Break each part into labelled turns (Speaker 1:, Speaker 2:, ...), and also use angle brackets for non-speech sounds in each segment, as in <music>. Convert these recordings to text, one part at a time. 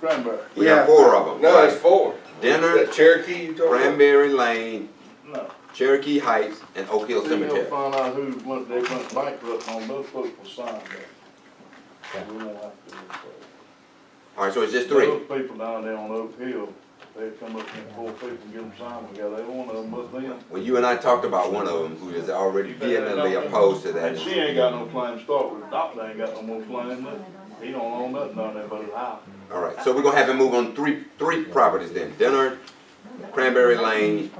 Speaker 1: Cranberry.
Speaker 2: We got
Speaker 3: Yeah.
Speaker 2: four of them.
Speaker 4: No, it's four.
Speaker 2: Dinner,
Speaker 4: That Cherokee you talking about?
Speaker 2: Cranberry Lane,
Speaker 1: No.
Speaker 2: Cherokee Heights, and Oak Hill
Speaker 1: See, you'll
Speaker 2: Cemetery.
Speaker 1: find out who went, they went bankrupt on those people signed that. We won't have to. do that.
Speaker 2: Alright, so it's just three.
Speaker 1: Those people down there on Oak Hill, they come up and four people and get them signed together. They one of them was them.
Speaker 2: Well, you and I talked about one of them who is already vehemently opposed to
Speaker 1: And she
Speaker 2: that.
Speaker 1: ain't got no claim to start with. Doctor ain't got no more claim. than- He don't own nothing down there but his house.
Speaker 2: Alright, so we're gonna have him move on three, three properties then. Dinner, Cranberry Lane,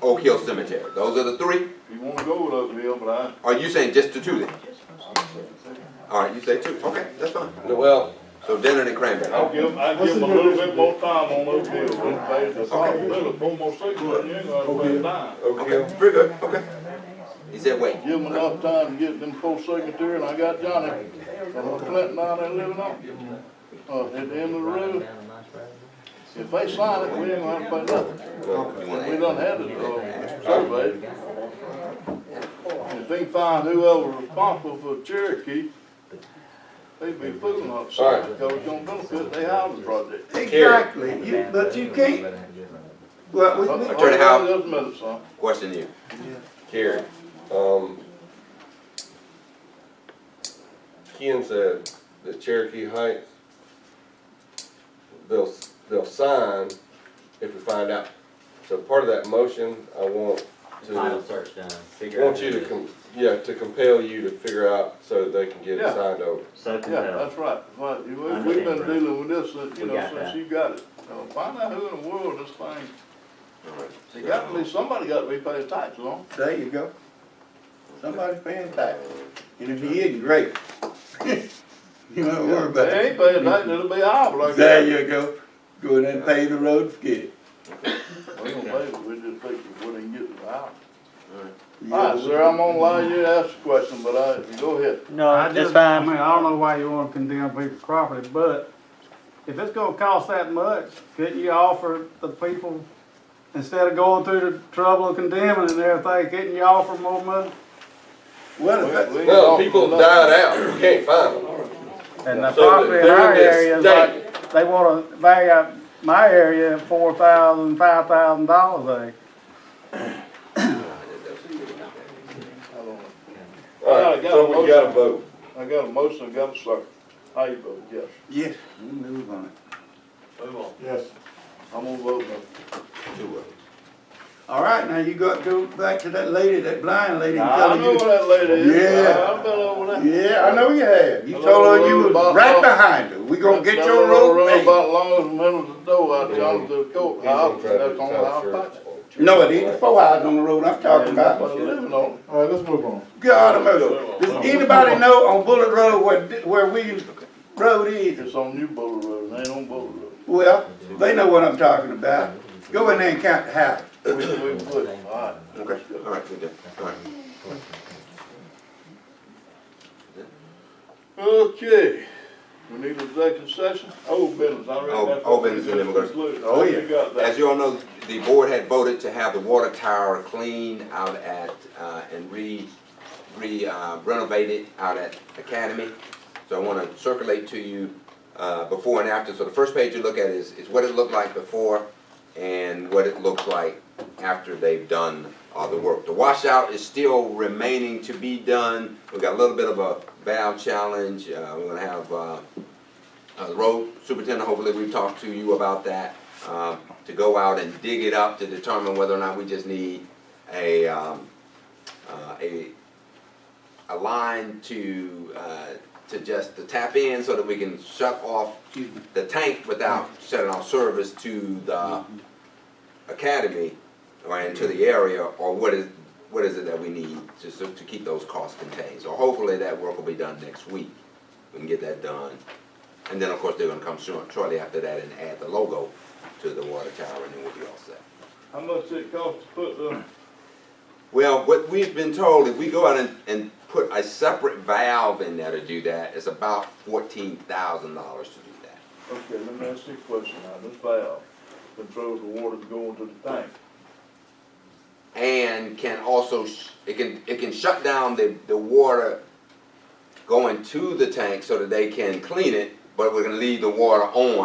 Speaker 2: Oak Hill Cemetery. Those are the three?
Speaker 1: If you wanna go with Oak Hill, but I,
Speaker 2: Are you saying just the two then? Alright, you say two. Okay, that's fine.
Speaker 4: No, Well,
Speaker 2: So dinner and Cranberry.
Speaker 1: I'll give, I'll give them a little bit more time on Oak Hill. Them pay the possibility, four more six, then you ain't gonna pay a dime.
Speaker 4: Oak Hill.
Speaker 2: Okay, pretty good, okay. He said wait.
Speaker 1: Give them enough time to get them full secretary, and I got Johnny, uh, Clinton down there living on, uh, at the end of the road. If they sign it, we ain't gonna have to pay
Speaker 2: You
Speaker 1: nothing, we
Speaker 2: wanna
Speaker 1: done had it, uh, surveyed. If they find whoever responsible for Cherokee, they be fooling us,
Speaker 4: Alright.
Speaker 1: because it's gonna benefit their housing project.
Speaker 3: Exactly, you, but you can't, well, we, we-
Speaker 2: Attorney Howard.
Speaker 1: Just a minute, son.
Speaker 2: add? Question you.
Speaker 4: Karen, um, Ken said that Cherokee Heights, they'll, they'll sign if we find out. So part of that motion, I want to,
Speaker 5: Title search done, figure out.
Speaker 4: want you to, com- yeah, to compel you to figure out so that they can get it
Speaker 1: Yeah.
Speaker 4: signed over.
Speaker 5: So
Speaker 1: Yeah,
Speaker 5: compelled.
Speaker 1: that's right, right, You- we- we've been
Speaker 5: Understand, bro.
Speaker 1: dealing with this, uh, you
Speaker 5: We
Speaker 1: know,
Speaker 5: got
Speaker 1: since
Speaker 5: that.
Speaker 1: you got it. Now, Find out who in the world this thing,
Speaker 2: Alright,
Speaker 1: they got to be, somebody got to be paying taxes on.
Speaker 3: there you go. Somebody's paying tax, and if he isn't, great. <laughs> You don't worry about
Speaker 1: They
Speaker 3: it.
Speaker 1: ain't paying taxes, it'll be ours, like
Speaker 3: There
Speaker 1: that.
Speaker 3: you go, go in and pay the road, forget it.
Speaker 1: We don't pay, it. we just think we wouldn't get it out.
Speaker 3: You
Speaker 1: All right,
Speaker 3: know,
Speaker 1: sir, I'm gonna allow you to ask the question, but I, go ahead.
Speaker 6: I
Speaker 5: No,
Speaker 6: just, I mean, I don't know why you wanna condemn people's property, but if it's gonna cost that much, couldn't you offer the people, instead of going through the trouble of condemning and everything, couldn't you offer more money?
Speaker 3: Well, if
Speaker 1: We-
Speaker 3: that-
Speaker 1: we ain't
Speaker 4: No,
Speaker 1: talking
Speaker 4: people
Speaker 1: about-
Speaker 4: died out, we can't find them.
Speaker 6: And the
Speaker 4: So
Speaker 6: property in
Speaker 4: they're
Speaker 6: our
Speaker 4: in this
Speaker 6: area is
Speaker 4: state.
Speaker 6: like, they wanna value out my area at four thousand, five thousand dollars
Speaker 1: I don't know.
Speaker 4: All right, so we got a vote.
Speaker 1: I got a motion, I got a second. How you vote, yes?
Speaker 3: yes, we move on.
Speaker 1: Yes. I'm gonna vote no.
Speaker 2: two of them.
Speaker 3: All right, now you got to go back to that lady, that blind lady and
Speaker 1: I
Speaker 3: tell
Speaker 1: know
Speaker 3: her
Speaker 1: where that lady is,
Speaker 3: Yeah.
Speaker 1: I- I've been over there.
Speaker 3: you. Yeah, I know you have. You told her you was right behind her. We gonna get your road
Speaker 1: Road
Speaker 3: paved.
Speaker 1: about long as the middle of the door, I tell them to go, I'll, that's on our property.
Speaker 3: No, it ain't. Four hours on the road I'm talking
Speaker 1: But
Speaker 3: about.
Speaker 1: living on,
Speaker 6: All right, let's move on.
Speaker 3: God of mercy. Does anybody know on Bullet Road where, where Williams Road is?
Speaker 1: it's on New Bowler Road, it ain't on Bowler Road.
Speaker 3: Well, they know what I'm talking about. Go in there and count the house.
Speaker 1: We, we put, alright.
Speaker 2: Okay, alright, we're done, alright.
Speaker 1: Okay, we need an executive session, old business, I read
Speaker 2: Old-
Speaker 1: that.
Speaker 2: old business, and then we're gonna-
Speaker 3: Oh, yeah.
Speaker 1: You got
Speaker 2: As
Speaker 1: that.
Speaker 2: you all know, the board had voted to have the water tower cleaned out at, uh, and re, re uh, renovated out at Academy. So I wanna circulate to you, uh, before and after, so the first page you look at is, is what it looked like before and what it looks like after they've done all the work. The washout is still remaining to be done, we've got a little bit of a valve challenge, uh, we're gonna have, uh, uh, the road superintendent, hopefully we've talked to you about that, um, to go out and dig it up to determine whether or not we just need a, um, uh, a, a line to, uh, to just, to tap in so that we can shut off the tank without shutting off service to the academy or into the area, or what is, what is it that we need just to, to keep those costs contained? So hopefully that work will be done next week, we can get that done. And then, of course, they're gonna come soon, shortly after that and add the logo to the water tower and then we'll be all set.
Speaker 1: How much it cost to put the,
Speaker 2: Well, what we've been told, if we go out and, and put a separate valve in there to do that, it's about fourteen thousand dollars to do that.
Speaker 1: okay, let me ask you a question now, this valve controls the water going to the tank.
Speaker 2: And can also, sh- it can, it can shut down the, the water going to the tank so that they can clean it, but we're gonna leave the water on